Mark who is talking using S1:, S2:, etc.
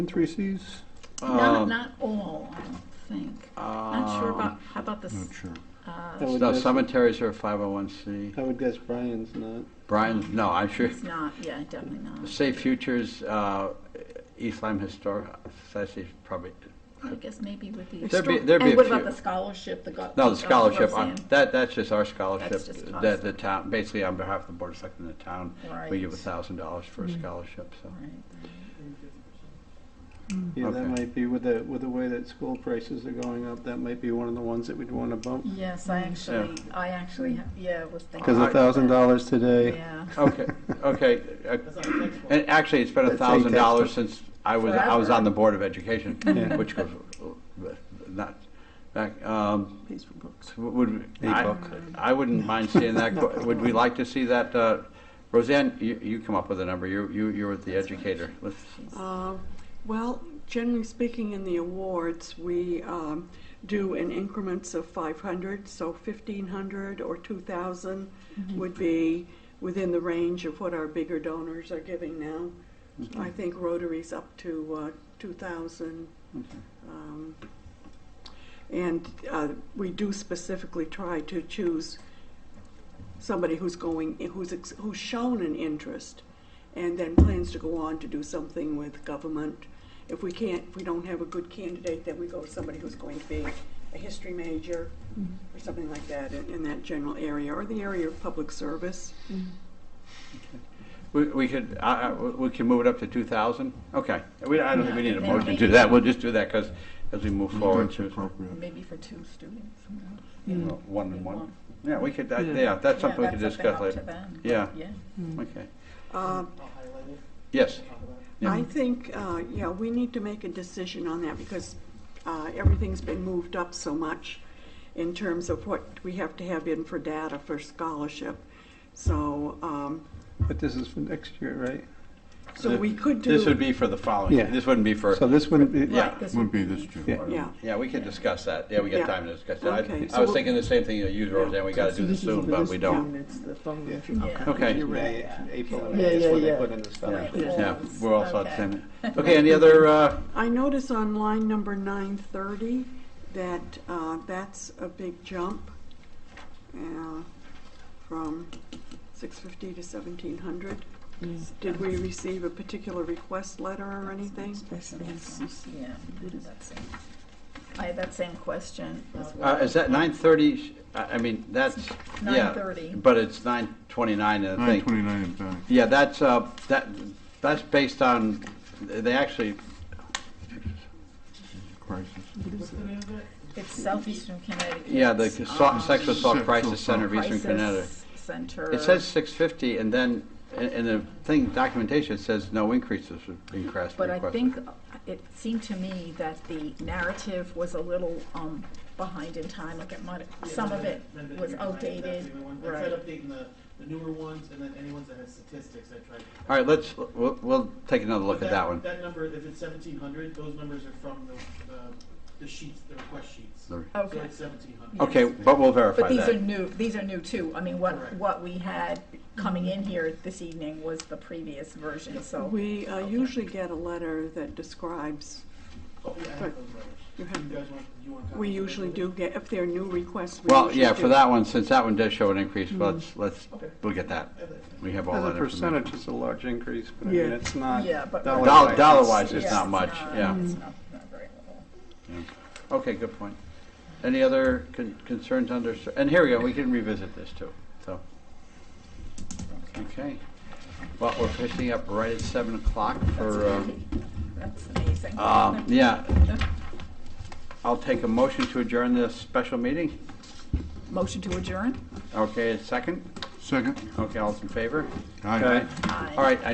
S1: three Cs?
S2: Not,
S3: Um,
S2: not all, I don't think. Not sure about, how about this, uh,
S4: Not sure.
S1: I would
S3: No,
S1: guess-
S3: cemeteries are 501c.
S1: I would guess Brian's not.
S3: Brian's, no, I'm sure.
S2: it's not, yeah, definitely not.
S3: Safe Futures, uh, East Lyme Historic Society is probably,
S2: I guess maybe with the.
S3: There'd be-
S2: histo-
S3: there'd be
S2: And
S3: a
S2: what about
S3: few.
S2: the scholarship, the. go-
S3: no,
S2: uh,
S3: the scholarship, on-
S2: Roseanne?
S3: that, that's just our scholarship.
S2: That's just
S3: That
S2: us.
S3: the town, basically on behalf of the Board of Selectmen of the town, we give a
S2: Right. Mm-hmm.
S3: thousand dollars for a scholarship, so.
S2: Right.
S1: Yeah, that
S3: Okay.
S1: might be with the, with the way that school prices are going up, that might be one of the ones that we'd want to bump.
S2: Yes, I actually, I actually, ha- yeah, was thinking.
S1: Because a
S2: about
S1: thousand
S2: that.
S1: dollars today,
S2: Yeah.
S3: Okay, okay. uh, And actually, it's been a
S1: That's
S3: thousand dollars
S1: fantastic.
S3: since I was, I was
S2: Forever.
S3: on the Board of Education,
S1: Yeah.
S3: which goes, uh, not, back, um,
S1: pays for books.
S3: Would,
S1: A
S3: I,
S1: book.
S3: I wouldn't mind seeing that, go- would we like to see that, uh, Roseanne, you, you come up with a number, you, you, you're the educator. Let's,
S5: Uh, Well, generally speaking, in the awards, we um, do in increments of 500, so 1,500 or 2,000 would be within the range of what our bigger donors are giving now. I think Rotary's up to uh, 2,000. Um, And uh, we do specifically try to choose somebody who's going, who's, ex- who's shown an interest and then plans to go on to do something with government. If we can't, if we don't have a good candidate, then we go with somebody who's going to be a history major or something like that in, in that general area or the area of public service.
S3: we, we could, I, I- we can move it up to two thousand? Okay, we, I don't think we need a
S2: Yeah.
S3: motion to do that, we'll just do that, because as we move forward
S4: That's
S3: to,
S4: appropriate.
S2: Maybe for two students. you know?
S3: Well, one and one. Yeah, we could, that-
S1: Yeah.
S3: yeah, that's
S2: Yeah,
S3: something we could
S2: that's
S3: discuss
S2: up to
S3: later.
S2: them.
S3: Yeah,
S2: Yeah.
S3: okay.
S5: Uh,
S3: Yes, Yeah.
S5: I think, uh, yeah, we need to make a decision on that because uh, everything's been moved up so much in terms of what we have to have in for data for scholarship. So, um,
S1: But this is for next year, right?
S5: so we could do.
S3: this would be for the following,
S1: Yeah.
S3: this wouldn't be for,
S1: So this wouldn't be,
S3: Yeah.
S2: Right, this
S4: Wouldn't be
S2: would
S4: this
S2: be-
S4: June.
S1: Yeah.
S5: Yeah.
S3: yeah, we could discuss that, yeah, we got
S5: Yeah.
S3: time to discuss that.
S5: Okay,
S3: I- I
S5: so
S3: was
S5: we'll-
S3: thinking the same thing, you, Roseanne, we gotta do this soon, but we don't.
S6: It's the phone.
S1: Yeah.
S2: Yeah.
S3: Okay.
S1: you're right, April and
S6: Yeah,
S1: May is
S6: yeah,
S1: when they
S6: yeah.
S1: put in the
S3: Yeah,
S1: stuff.
S3: yeah,
S2: Yes.
S3: we're all saw the
S2: Okay.
S3: same. Okay, any other, uh,
S5: I notice on line number nine thirty that uh, that's a big jump uh, from six fifty to seventeen hundred. Did we receive a particular request letter or anything?
S2: Yeah, that's it. I had that same question as
S3: uh,
S2: well.
S3: is that nine thirty? I, I mean, that's, yeah.
S2: 9:30.
S3: But it's nine twenty-nine, I
S4: Nine
S3: think.
S4: twenty-nine in fact.
S3: Yeah, that's, uh, that, that's based on, they actually,
S4: crisis.
S2: It's Southeastern Connecticut.
S3: yeah, the so-
S2: um,
S3: sexual assault
S4: Sexual
S3: crisis center of
S4: assault.
S3: Eastern Connecticut.
S2: Crisis Center.
S3: It says six fifty, and then, in, in the thing, documentation, it says no increases request.
S2: But I
S3: requested.
S2: think uh, it seemed to me that the narrative was a little um, behind in time, like it might, some of it
S7: Then the
S2: was
S7: new one, that's
S2: outdated.
S7: the new one. I
S2: Right.
S7: tried updating the, the newer ones, and then any ones that had statistics, I tried.
S3: All right, let's, we'll, we'll take another look
S7: But
S3: at that one.
S7: That number, if it's seventeen hundred, those numbers are from the, the- the sheets, the request sheets.
S3: The-
S2: Okay.
S7: So it's seventeen hundred.
S3: Okay, but we'll verify
S2: But these are
S3: that.
S2: new, these are new too. I mean, what,
S7: Correct.
S2: what we had coming in here this evening was the previous version, so.
S5: We uh, usually get a letter that describes,
S7: Oh, yeah, I have those numbers. You
S5: you have,
S7: guys want, you want copies?
S5: we
S7: of those
S5: usually
S7: with
S5: do get, if there are new requests, we
S3: Well,
S5: usually do.
S3: yeah, for that one, since that one does show an increase,
S2: Mm-hmm.
S3: let's, let's,
S7: Okay.
S3: we'll get that.
S7: it? I have that.
S3: We have all
S1: As a
S3: that information.
S1: percentage, it's a large increase, but I mean,
S5: Yeah.
S1: it's not.
S2: Yeah, but-
S1: dollar-wise,
S3: Uh, Dollar,
S1: it's-
S3: dollar-wise, it's
S2: Yes,
S3: not much, yeah.
S2: It's not, not very little.
S3: Okay, good point. Any other con- concerns under, and here we go, we can revisit this too, so. Okay. Well, we're pushing up right at seven o'clock for, um,
S2: That's amazing.
S3: um, yeah. I'll take a motion to adjourn this special meeting.
S2: Motion to adjourn?
S3: Okay, a second?
S4: Second?
S3: Okay, all's in favor?
S4: Aye.
S1: Okay.
S3: All right, I-